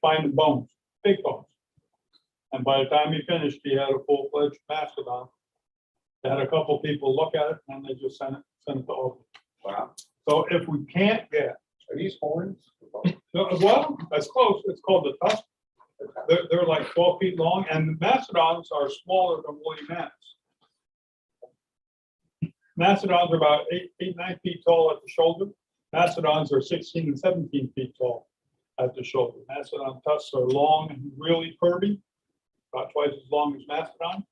find the bones, big bones. And by the time he finished, he had a full-fledged mastodon. They Had a couple people look at it and then they just sent it, sent it to Oakland. Wow. So if we can't get, Are these horns? no, Uh, well, that's close, it's called the tusk. They're, they're like twelve feet long and the mastodons are smaller than woolly mammoths. Mastodons are about eight, eight, nine feet tall at the shoulder. Mastodons are sixteen and seventeen feet tall at the shoulder. Mastodon tusks are long and really curvy, about twice as long as mastodon.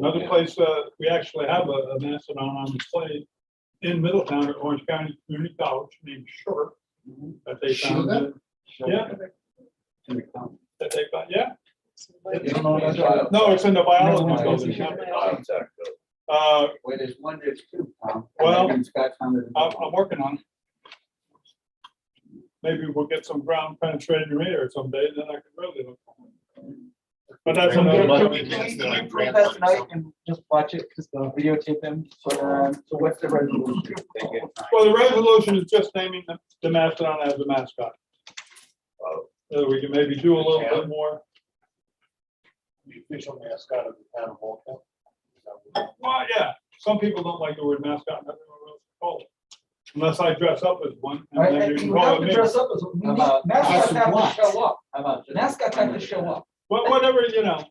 Another place, uh, we actually have a, a mastodon on display in Middletown at Orange County Community College named Short. That they found, uh, yeah, that they found, yeah, no, it's in the biology building. yeah. Uh, Where there's one, there's two, Tom. Well, And Scott found it. I'm, I'm working on it. Maybe we'll get some ground penetrating radar someday, then I can really look. But that's Can we- another. can we- can we- can we print that tonight and just watch it, because they'll videotape them, uh, so, um, so what's the resolution? Well, the resolution is just naming the, the mastodon as the mascot. So we can maybe do a little bit more. The official mascot of the town of Waltham. Well, yeah, some people don't like the word mascot, and everyone else calls it. Unless I dress up as one, Right, and then you and can you have call it to me. dress up as, we need- About- mascots have What? to show up, How about just- mascots have to show up, But whatever, you know,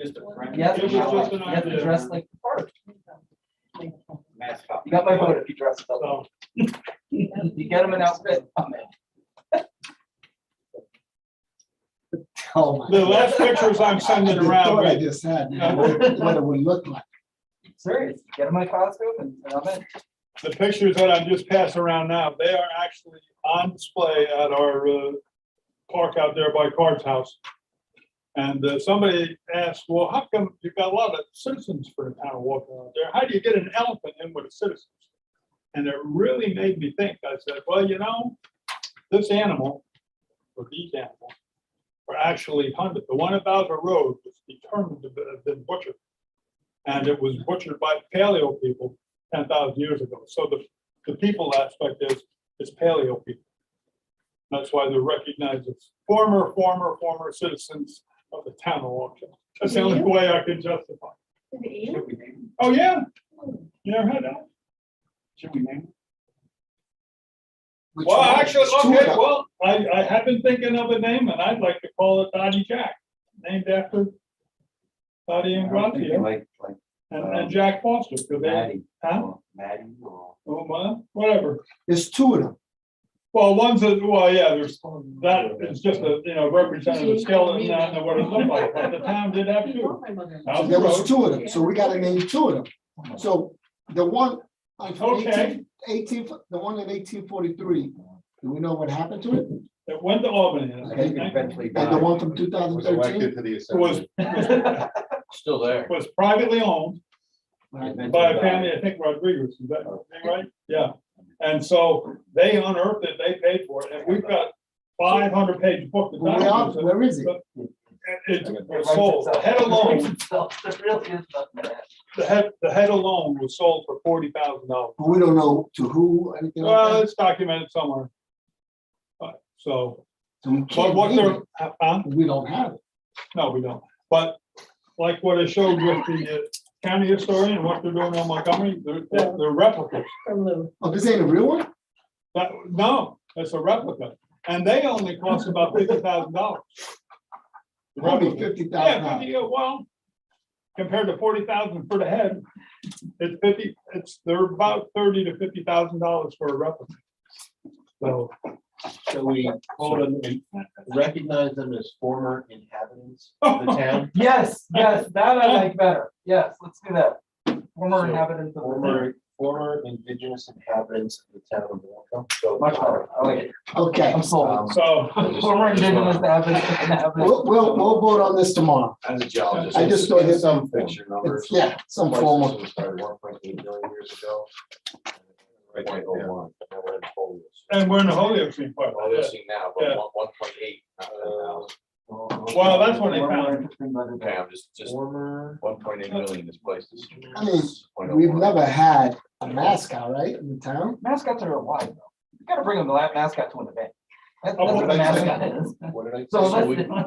Just a friend. you have to, It was show just up. an you have to idea. dress like the part. Mascot. You got my vote if you dress up, so, you get them an outfit, I'm in. Tell the last pictures I'm sending around, What I right, just had, you know, what what it would look like. Serious, get them my costume and and I'm in. the pictures that I'm just passing around now, they are actually on display at our uh, park out there by Card's house. And uh, somebody asked, well, how come you've got a lot of citizens for the town of walking out there? How do you get an elephant in with the citizens? And it really made me think. I said, well, you know, this animal, or these animals, were actually hunted. The one about the road was determined to have been butchered. And it was butchered by paleo people ten thousand years ago. So the, the people aspect is, is paleo people. That's why they're recognized as former, former, former citizens of the town of Waukesha. That's the only way I can justify. Is it you? Should we name Oh, yeah, Oh, you never had that? it? Should we name Which Well, one? actually, It's two of okay, them. well, I, I have been thinking of a name and I'd like to call it Dottie Jack, named after Dottie it? and I was thinking Grandia Like, like and, um, and Jack Foster. 'cause they- Maddie, Huh? or Maddie, or. Oh, my, whatever. It's two of them. Well, one's a, well, yeah, there's, that is just a, you know, representative skeleton, I don't know what it looked like, but the town did have you two. want my mother. Now, So There was two of them, so we gotta name two of them. So the one on Okay. 18 18 the one in eighteen forty-three, do we know what happened to it? It went to Albany. and I I think it think eventually And the died. one from two thousand Was thirteen? elected to the It was, assembly. Still there. was privately owned by a family, I think Rodriguez, is that right? Yeah, and so they unearthed it, they paid for it, and we've got five hundred page book. that Where are- documents it. where is it? It it was sold, the head alone, There really is nothing there. the head, the head alone was sold for forty thousand dollars. But We don't know to who, anything like Well, that. it's documented somewhere. Uh, So, So we but can't what name they're, it. uh, uh, We don't have it. no, we don't, but like what I showed with the uh, county historian, and what they're doing on Montgomery, they're, they're they're replicas. From Lou. Oh, this ain't a real one? That, no, it's a replica, and they only cost about fifty thousand dollars. Probably fifty thousand Yeah, dollars. fifty, uh, well, compared to forty thousand for the head, it's fifty, it's, they're about thirty to fifty thousand dollars for a replica. So, So we hold them and recognize them as former inhabitants of the town, Yes, yes, that I like better, yes, let's do that. Former inhabitants of the town. former, former indigenous inhabitants of the town of Waltham. So Much better, I like it. Okay, I'm sold. Um, so, Former indigenous inhabitants. we'll, we'll, we'll vote on this tomorrow. As a geologist. I just thought it- Some picture numbers. It's, yeah, some form of. Places was started one point eight million years ago. Right, Point oh one. Now we're in Polish. and we're in the Holyoke scene part. All they're seeing now, Yeah. but one, one point eight. not 10,000. Well, that's when they found it. found. Okay, I'm just, just Former. one point eight million is placed. as- I mean, 0.01. We've never had a mascot, right, in the town? Mascots are alive, though. You gotta bring them the lab mascot to an event. That's that's what a mascot is. What did I? So we- let's,